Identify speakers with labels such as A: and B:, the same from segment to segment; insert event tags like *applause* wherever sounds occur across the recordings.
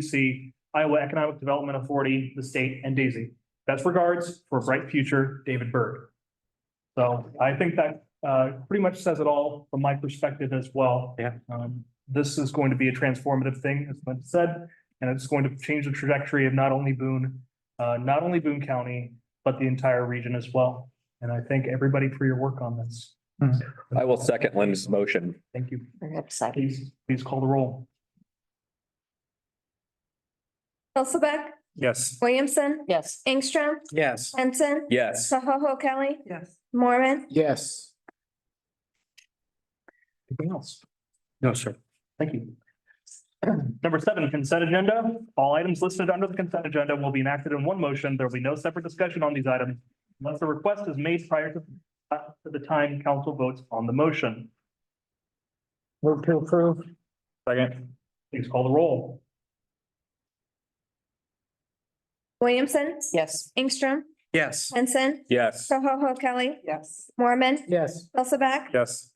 A: CDC, Iowa Economic Development Authority, the state, and Daisy. Best regards for a bright future, David Byrd. So I think that uh, pretty much says it all from my perspective as well.
B: Yeah.
A: Um, This is going to be a transformative thing, as Lynn said, and it's going to change the trajectory of not only Boone, uh, not only Boone County, but the entire region as well. And I thank everybody for your work on this.
B: I will second Lynn's motion.
A: Thank you.
C: Very exciting.
A: Please, please call the roll.
D: Hulseth,
A: Yes.
D: Williamson,
C: Yes.
D: Ingstrom,
B: Yes.
D: Henson,
B: Yes.
D: Koho Kelly,
C: Yes.
D: Mormon,
E: Yes.
A: Anything else?
B: No, sir.
A: Thank you. *clears throat* Number seven, consent agenda. All items listed under the consent agenda will be enacted in one motion. There will be no separate discussion on these items unless a request is made prior to uh, to the time council votes on the motion.
E: Move to approve.
A: Second. Please call the roll.
D: Williamson,
C: Yes.
D: Ingstrom,
B: Yes.
D: Henson,
B: Yes.
D: Koho Kelly,
C: Yes.
D: Mormon,
E: Yes.
D: Hulseth,
B: Yes.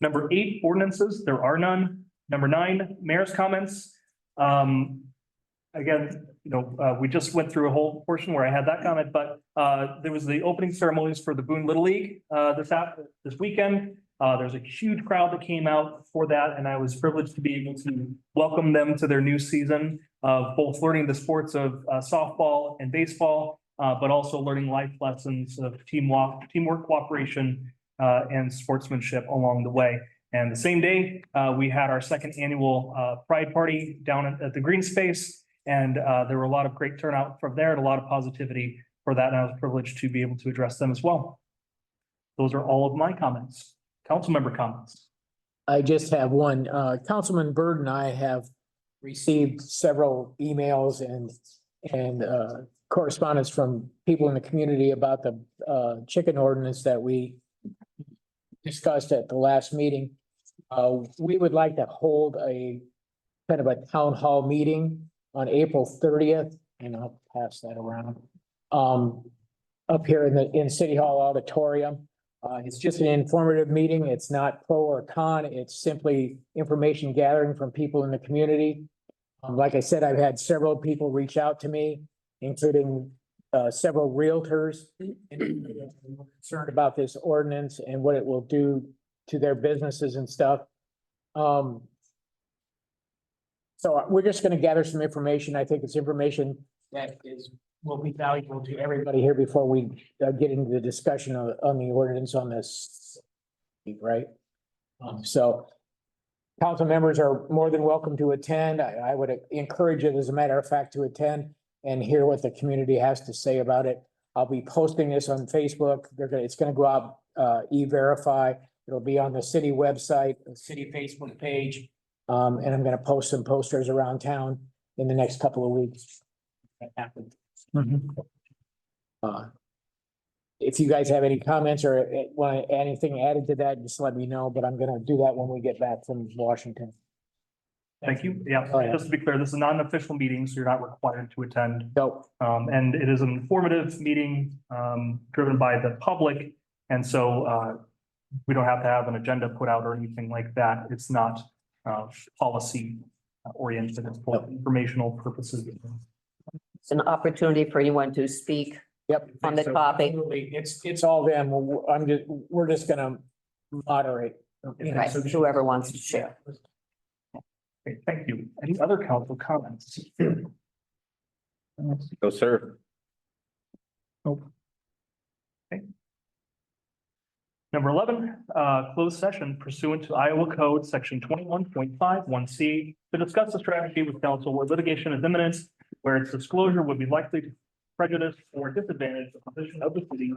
A: Number eight, ordinances, there are none. Number nine, mayor's comments. Um, again, you know, uh, we just went through a whole portion where I had that comment, but, uh, there was the opening ceremonies for the Boone Little League, uh, this app, this weekend. Uh, there's a huge crowd that came out for that, and I was privileged to be able to welcome them to their new season of both learning the sports of uh, softball and baseball, uh, but also learning life lessons of teamwork, teamwork, cooperation, uh, and sportsmanship along the way. And the same day, uh, we had our second annual, uh, Pride Party down at, at the Green Space. And, uh, there were a lot of great turnout from there and a lot of positivity for that. And I was privileged to be able to address them as well. Those are all of my comments, council member comments.
E: I just have one. Uh, Councilman Byrd and I have received several emails and, and, uh, correspondence from people in the community about the, uh, chicken ordinance that we discussed at the last meeting. Uh, we would like to hold a kind of a town hall meeting on April thirtieth, and I'll pass that around. Um, up here in the, in City Hall auditorium. Uh, it's just an informative meeting. It's not pro or con. It's simply information gathering from people in the community. Um, like I said, I've had several people reach out to me, including, uh, several realtors. Concerned about this ordinance and what it will do to their businesses and stuff. Um. So uh, we're just gonna gather some information. I think it's information that is, will be valuable to everybody here before we uh, get into the discussion on, on the ordinance on this, right? Um, so council members are more than welcome to attend. I, I would encourage it, as a matter of fact, to attend and hear what the community has to say about it. I'll be posting this on Facebook. They're gonna, it's gonna go out, uh, e-verify. It'll be on the city website, the city Facebook page. Um, and I'm gonna post some posters around town in the next couple of weeks. That happened. Uh, If you guys have any comments or uh, want anything added to that, just let me know, but I'm gonna do that when we get back from Washington.
A: Thank you.
E: Oh,
A: Yeah,
E: yeah.
A: just to be clear, this is not an official meeting, so you're not required to attend.
E: So,
A: Um, and it is an informative meeting, um, driven by the public. And so, uh, we don't have to have an agenda put out or anything like that. It's not, uh, policy oriented. It's for informational purposes.
C: It's an opportunity for anyone to speak
E: yep.
C: on the topic.
E: Absolutely. It's, it's all them. I'm just, we're just gonna moderate. you know,
C: Right,
E: so-
C: whoever wants to share.
A: Okay, thank you. Any other council comments?
B: No, sir.
A: Number eleven, uh, closed session pursuant to Iowa Code, section twenty-one point five one C, to discuss the strategy with counsel where litigation is imminent, where its disclosure would be likely to prejudice or disadvantage the position of the city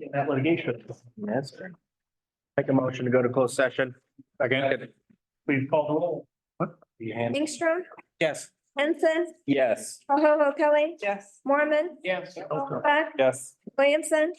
A: in that litigation.
B: Yes, sir. Make a motion to go to closed session. Again.
A: Please call the roll.
D: Ingstrom,
B: Yes.
D: Henson,
B: Yes.
D: Koho Kelly,
C: Yes.
D: Mormon,
E: Yes.
D: Hulseth,
B: Yes.
D: Williamson,